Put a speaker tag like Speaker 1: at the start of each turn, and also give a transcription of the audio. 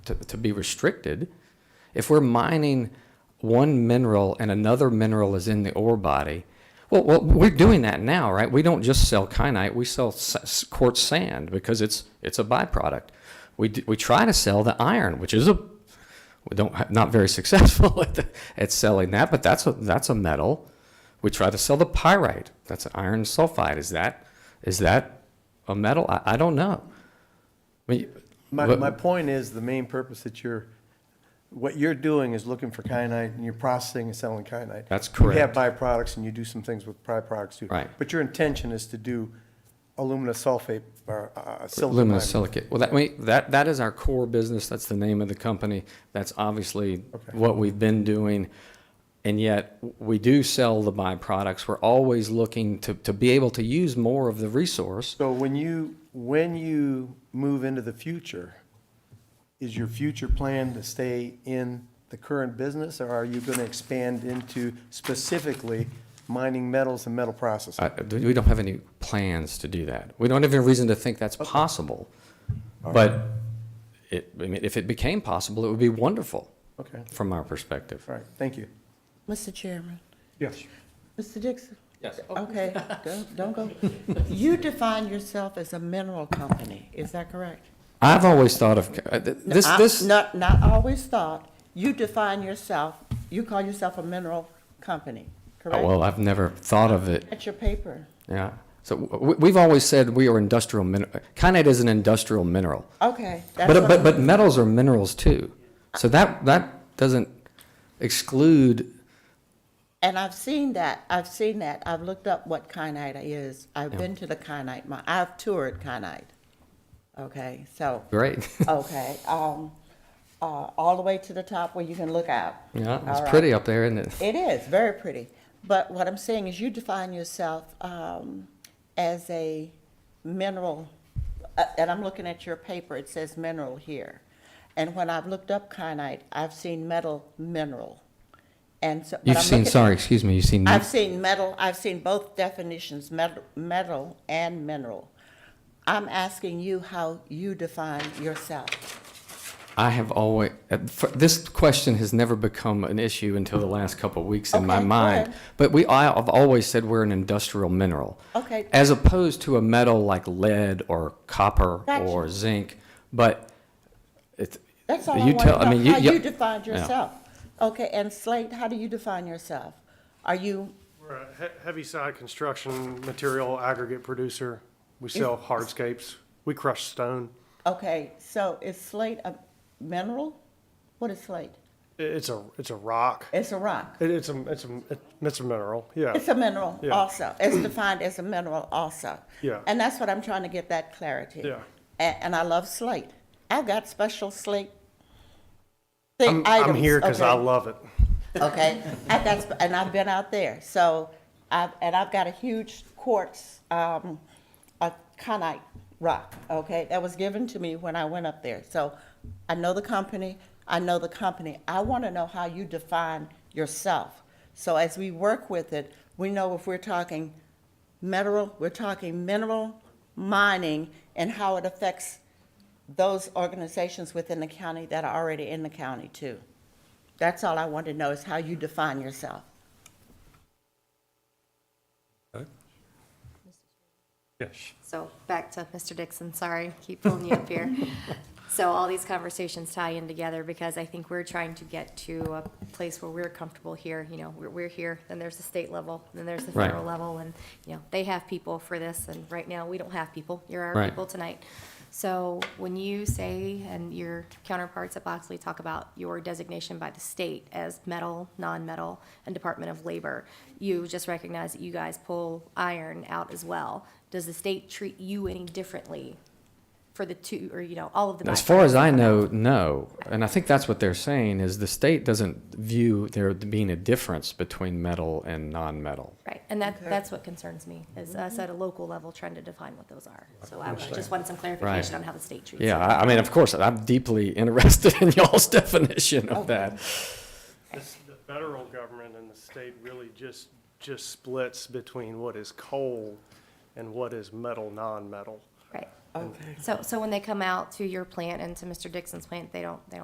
Speaker 1: to, to be restricted. If we're mining one mineral and another mineral is in the ore body, well, well, we're doing that now, right? We don't just sell kyanite; we sell s- s- quartz sand because it's it's a byproduct. We d- we try to sell the iron, which is a we don't not very successful at, the, at selling that, but that's a that's a metal. We try to sell the pyrite. That's iron sulfide. Is that is that a metal? I, I don't know. I mean,
Speaker 2: My,
Speaker 1: but-
Speaker 2: my point is, the main purpose that you're, what you're doing is looking for kyanite, and you're processing and selling kyanite.
Speaker 1: That's
Speaker 2: You have
Speaker 1: correct.
Speaker 2: byproducts, and you do some things with byproducts too.
Speaker 1: Right.
Speaker 2: But your intention is to do alumina sulfate or uh, silicon.
Speaker 1: Aluminum
Speaker 2: mining.
Speaker 1: silicate. Well, that, we, that, that is our core business. That's the name of the company. That's obviously
Speaker 2: Okay.
Speaker 1: what we've been doing. And yet we do sell the byproducts. We're always looking to, to be able to use more of the resource.
Speaker 2: So when you, when you move into the future, is your future plan to stay in the current business, or are you going to expand into specifically mining metals and metal processing?
Speaker 1: Uh, we don't have any plans to do that. We don't have any reason to think that's possible. But it, I mean, if it became possible, it would be wonderful
Speaker 2: Okay,
Speaker 1: from our perspective.
Speaker 2: all right, thank you.
Speaker 3: Mr. Chairman,
Speaker 2: Yes.
Speaker 3: Mr. Dixon,
Speaker 1: Yes.
Speaker 3: okay, go- don't go. You define yourself as a mineral company, is that correct?
Speaker 1: I've always thought of, uh, th- this,
Speaker 3: I-
Speaker 1: this.
Speaker 3: Not, not always thought, you define yourself, you call yourself a mineral company, correct?
Speaker 1: Oh, Well, I've never thought of it
Speaker 3: At your paper,
Speaker 1: Yeah. So w- we've always said we are industrial min- kyanite is an industrial mineral,
Speaker 3: okay. that's
Speaker 1: but
Speaker 3: what
Speaker 1: but
Speaker 3: I'm-
Speaker 1: but metals are minerals too. So that that doesn't exclude.
Speaker 3: And I've seen that, I've seen that, I've looked up what kyanite is, I've been to the kyanite, mi- I've toured kyanite, okay, so.
Speaker 1: Great.
Speaker 3: Okay, um, uh, all the way to the top where you can look out.
Speaker 1: yeah, it's
Speaker 3: All right.
Speaker 1: pretty up there, isn't it?
Speaker 3: It is, very pretty. But what I'm saying is you define yourself, um, as a mineral, uh, and I'm looking at your paper, it says mineral here. And when I've looked up kyanite, I've seen metal mineral. And so. but
Speaker 1: You've
Speaker 3: I'm
Speaker 1: seen.
Speaker 3: looking-
Speaker 1: Sorry, excuse me. You've seen.
Speaker 3: I've seen metal, I've seen both definitions, metal, metal and mineral. I'm asking you how you define yourself.
Speaker 1: I have always. uh, for- This question has never become an issue until the last couple of weeks in my
Speaker 3: Okay, go
Speaker 1: mind.
Speaker 3: ahead.
Speaker 1: But we, I have always said we're an industrial mineral.
Speaker 3: Okay.
Speaker 1: As opposed to a metal like lead or copper
Speaker 3: Gotcha.
Speaker 1: or zinc, but it's.
Speaker 3: That's all I
Speaker 1: you
Speaker 3: want
Speaker 1: tell-
Speaker 3: to
Speaker 1: mean,
Speaker 3: know, how you
Speaker 1: yeah.
Speaker 3: defined yourself. Okay, and Slate, how do you define yourself? Are you,
Speaker 4: We're a he- heavy side construction material aggregate producer. We sell hardscapes. We crush stone.
Speaker 3: okay, so is slate a mineral? What is slate?
Speaker 4: I- It's a, it's a rock.
Speaker 3: It's a rock.
Speaker 4: It- It's a, it's a, it's a mineral, yeah.
Speaker 3: It's a mineral
Speaker 4: Yeah.
Speaker 3: also. It's defined as a mineral also.
Speaker 4: Yeah.
Speaker 3: And that's what I'm trying to get that clarity.
Speaker 4: Yeah.
Speaker 3: A- And, I love slate. I've got special slate thing
Speaker 4: I'm, I'm
Speaker 3: items,
Speaker 4: here because I
Speaker 3: okay?
Speaker 4: love it.
Speaker 3: okay? And that's, and I've been out there, so, I've, and I've got a huge quartz, um, a conite rock, okay? That was given to me when I went up there, so I know the company, I know the company. I wanna know how you define yourself. So as we work with it, we know if we're talking mineral, we're talking mineral mining and how it affects those organizations within the county that are already in the county too. That's all I want to know is how you define yourself.
Speaker 4: Yes.
Speaker 5: So back to Mr. Dixon, sorry, keep pulling you up here. So all these conversations tie in together because I think we're trying to get to a place where we're comfortable here, you know, we're, we're here, then there's the state level, then there's the
Speaker 1: Right.
Speaker 5: federal level, and, you know, they have people for this, and right now, we don't have people, you're our
Speaker 1: Right.
Speaker 5: people tonight. So when you say, and your counterparts at Boxley talk about your designation by the state as metal, non-metal, and Department of Labor, you just recognize that you guys pull iron out as well. Does the state treat you any differently for the two, or, you know, all of the?
Speaker 1: As far as
Speaker 5: byproducts?
Speaker 1: I know, no. And I think that's what they're saying is the state doesn't view there being a difference between metal and non-metal.
Speaker 5: Right, and that, that's what concerns me, is us at a local level trying to define what those are. So I was- just want some clarification on how the state treats it.
Speaker 1: Yeah, I, I mean, of course, I'm deeply interested in y'all's definition of that.
Speaker 4: This, the federal government and the state really just, just splits between what is coal and what is metal, non-metal.
Speaker 5: Right. Okay. So, so when they come out to your plant and to Mr. Dixon's plant, they don't, they don't